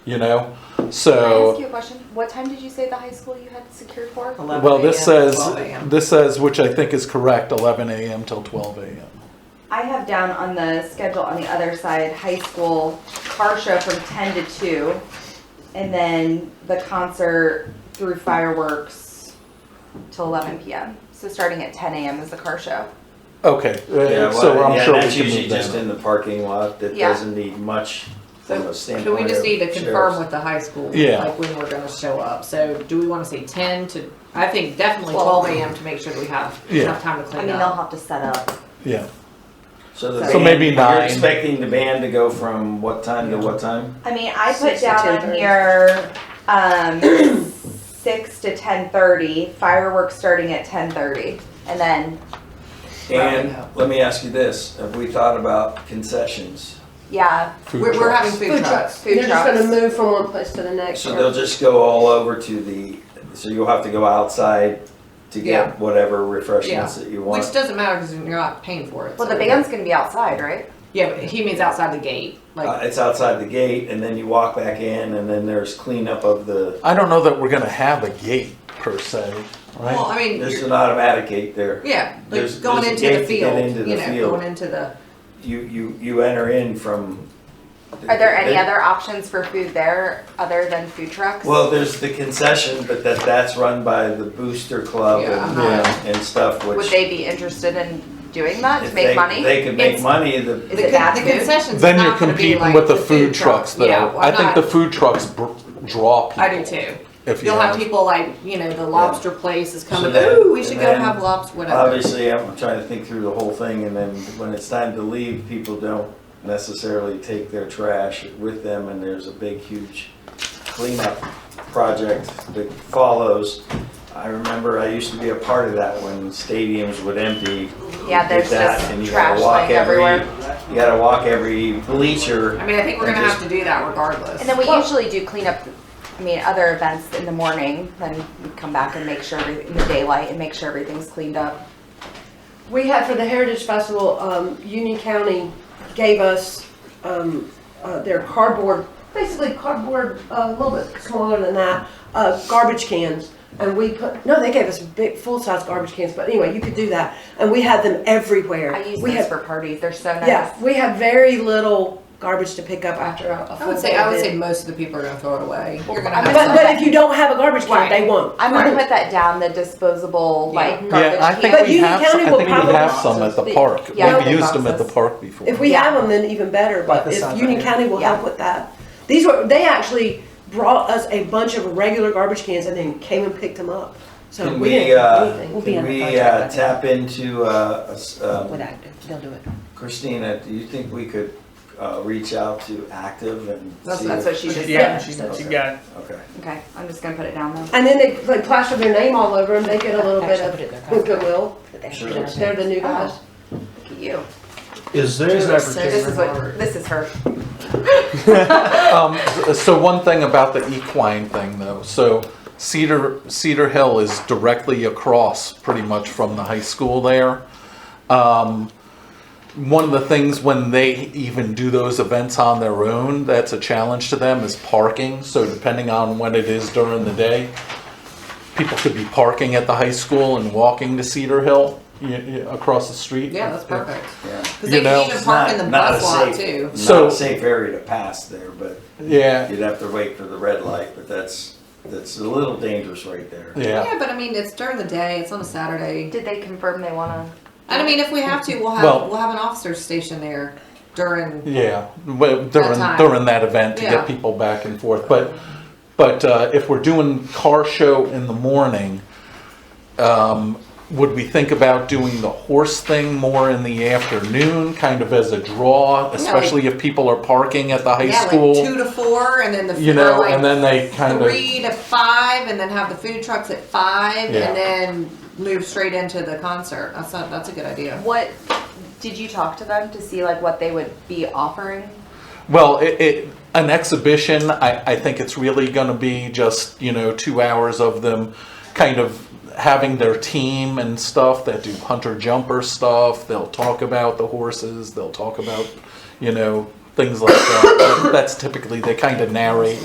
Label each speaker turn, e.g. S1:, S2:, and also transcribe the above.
S1: you know?
S2: Can I ask
S1: So,
S2: you a question? What time did you say the high school you had secured for?
S3: 11
S1: well, this
S3: a.m.
S1: says,
S3: to 12 a.m.
S1: this says, which I think is correct, 11 a.m. till 12 a.m.
S4: I have down on the schedule on the other side, high school car show from ten to two, and then the concert through fireworks till eleven p.m. So starting at ten a.m. is the car show.
S1: Okay, uh,
S5: Yeah, well,
S1: so I'm
S5: yeah,
S1: sure we
S5: that's
S1: can
S5: usually
S1: move
S5: just
S1: that.
S5: in
S1: up.
S5: the parking lot. That
S4: Yeah.
S5: doesn't need much from
S3: So,
S5: a standpoint.
S3: do we just
S5: of
S3: need to
S5: chairs.
S3: confirm with the high school?
S1: Yeah.
S3: Like when we're gonna show up, so do we wanna say ten to, I think definitely
S4: Twelve.
S3: twelve AM to make sure that we have
S1: Yeah.
S3: enough time to
S4: I
S3: clean
S4: mean, they'll
S3: up.
S4: have to set up.
S1: Yeah,
S5: So, the
S4: So
S5: band,
S1: maybe
S5: You're
S1: nine.
S5: expecting the band to go from what time to what time?
S4: I mean, I put
S2: Six to
S4: down on
S2: 10:30.
S4: here um, six to ten thirty, fireworks starting at ten thirty, and then
S5: And
S3: Rounding up.
S5: let me ask you this: Have we thought about concessions?
S4: yeah,
S1: food
S3: We're, we're
S1: trucks.
S3: having food trucks.
S4: food
S6: They're just
S4: trucks.
S6: gonna move from one place to the next.
S5: So
S6: or-
S5: they'll just go all over to the. So you'll have to go outside to get
S3: Yeah.
S5: whatever refreshments that you want.
S3: Which doesn't matter because you're not paying for it.
S4: well,
S3: so-
S4: the band's gonna be outside, right?
S3: Yeah, but he means outside the gate,
S5: uh,
S3: like,
S5: it's outside the gate, and then you walk back in, and then there's cleanup of the.
S1: I don't know that we're gonna have a gate per se,
S3: well,
S1: right?
S3: I mean,
S5: There's
S3: you're-
S5: an automatic gate there.
S3: yeah,
S5: there's-
S3: like going
S5: there's a
S3: into the
S5: gate to get
S3: field,
S5: into
S3: you
S5: the
S3: know,
S5: field.
S3: going into the,
S5: you you you enter in from.
S4: Are there any other options for food there other than food trucks?
S5: Well, there's the concession, but that that's run by the Booster Club
S3: Yeah,
S5: and,
S3: I'm not-
S1: Yeah.
S5: and stuff. Which
S4: Would they be interested in doing that
S5: if
S4: to make
S5: they,
S4: money?
S5: They could make
S3: It's-
S5: money.
S4: Is
S3: the
S5: The
S4: it bad
S3: con- the
S4: food?
S3: concessions is
S1: Then you're
S3: not gonna be
S1: competing
S3: like
S1: with the
S3: the
S1: food trucks
S3: Yeah,
S1: though.
S3: well,
S1: I think
S3: not-
S1: the food trucks br- draw people.
S3: I do too.
S1: If you
S3: You'll have
S1: have,
S3: people like, you know, the lobster place is coming,
S5: then-
S3: ooh, we should
S5: and
S3: go
S5: then
S3: have lobster, whatever.
S5: obviously, I'm trying to think through the whole thing, and then when it's time to leave, people don't necessarily take their trash with them, and there's a big, huge cleanup project that follows. I remember I used to be a part of that when stadiums would empty.
S4: Yeah,
S5: did
S4: there's
S5: that,
S4: just
S5: and you
S4: trash
S5: gotta walk
S4: laying
S5: every,
S4: everywhere.
S5: You gotta walk every bleacher.
S3: I mean, I think we're
S5: and
S3: gonna
S5: just-
S3: have to do that regardless.
S4: And then we
S3: Well,
S4: usually do clean up. I mean, other events in the morning, then we come back and make sure every, in the daylight and make sure everything's cleaned up.
S6: We had for the Heritage Festival, um, Union County gave us, um, uh, their cardboard, basically cardboard, uh, a little bit smaller than that, uh, garbage cans. And we put, no, they gave us big, full-size garbage cans, but anyway, you could do that. And we had them everywhere.
S4: I use
S6: We
S4: those
S6: had-
S4: for parties. They're so nice.
S6: Yeah, we had very little garbage to pick up after a a
S3: I
S6: full
S3: would say,
S6: day
S3: I
S6: of
S3: would say
S6: bidding.
S3: most of the people are gonna throw it away. You're gonna
S4: I'm
S3: have
S6: But,
S4: gonna-
S3: some.
S6: but if you don't have a garbage
S3: Right.
S6: can, they won't.
S4: I'm gonna put that down. The disposable like
S3: Yeah.
S4: garbage
S1: yeah, I
S4: cans.
S1: think
S6: But
S1: we
S6: Union
S1: have,
S6: County
S1: some- I
S6: will
S1: think we
S6: probably
S1: have
S6: have
S1: some
S6: some
S1: at the
S6: speak-
S1: park.
S4: Yeah,
S1: We've
S4: the
S1: used them at the
S4: boxes.
S1: park before.
S6: If we
S4: Yeah.
S6: have them, then even better,
S7: Like
S6: but
S7: this
S6: if
S7: side
S6: Union
S7: right here.
S6: County will help with that. These were, they actually brought us a bunch of regular garbage cans and then came and picked them up. So
S5: Can
S6: we
S5: we,
S6: didn't do
S5: uh,
S6: anything.
S8: We'll be
S5: can
S8: on the
S5: we
S8: contract
S5: uh,
S8: with
S5: tap into, uh, a s-
S8: with
S5: um,
S8: active, they'll do it.
S5: Christina, do you think we could uh, reach out to Active and
S4: That's,
S5: see
S4: that's
S5: if-
S4: what she just
S7: Yeah,
S4: said.
S7: she, she got it.
S5: Okay.
S4: Okay, I'm just gonna put it down though.
S6: And then they like plaster their name all over them, they get a little bit
S8: Actually, put it in their Oh.
S6: of goodwill.
S8: But they have to
S5: Sure.
S8: do it.
S6: They're the new guys.
S4: Look at you.
S7: Is there an
S4: This
S7: opportunity?
S4: is what this is her.
S1: Um, so one thing about the equine thing though, so Cedar, Cedar Hill is directly across pretty much from the high school there. Um, one of the things when they even do those events on their own, that's a challenge to them is parking. So depending on when it is during the day, people could be parking at the high school and walking to Cedar Hill, y y across the street.
S3: Yeah, that's perfect.
S5: Yeah.
S3: Cause
S1: You
S3: they
S1: know,
S3: can even
S5: It's
S3: park in
S5: not-
S3: the
S5: not a
S3: bus lot
S5: safe-
S3: too.
S5: Not
S1: So-
S5: a safe area to pass there, but
S1: Yeah,
S5: you'd have to wait for the red light, but that's, that's a little dangerous right there.
S1: yeah.
S3: Yeah, but I mean, it's during the day, it's on a Saturday.
S4: Did they confirm they wanna?
S3: And I mean, if we have to, we'll
S1: Well-
S3: have, we'll have an officer stationed there during,
S1: Yeah, well, during
S3: time.
S1: during that event to
S3: Yeah.
S1: get people back and forth, but but uh, if we're doing car show in the morning, um, would we think about doing the horse thing more in the afternoon, kind of as a draw, especially if people are parking at the high
S3: yeah, like
S1: school,
S3: two to four and then the.
S1: you
S3: or
S1: know,
S3: like
S1: and then they kind of
S3: Three to five and then have the food trucks at five
S1: Yeah.
S3: and then move straight into the concert. That's not, that's a good idea.
S4: What did you talk to them to see like what they would be offering?
S1: well, it, it an exhibition. I I think it's really going to be just you know two hours of them, kind of. Having their team and stuff that do hunter jumper stuff, they'll talk about the horses, they'll talk about, you know, things like that. That's typically they kind of narrate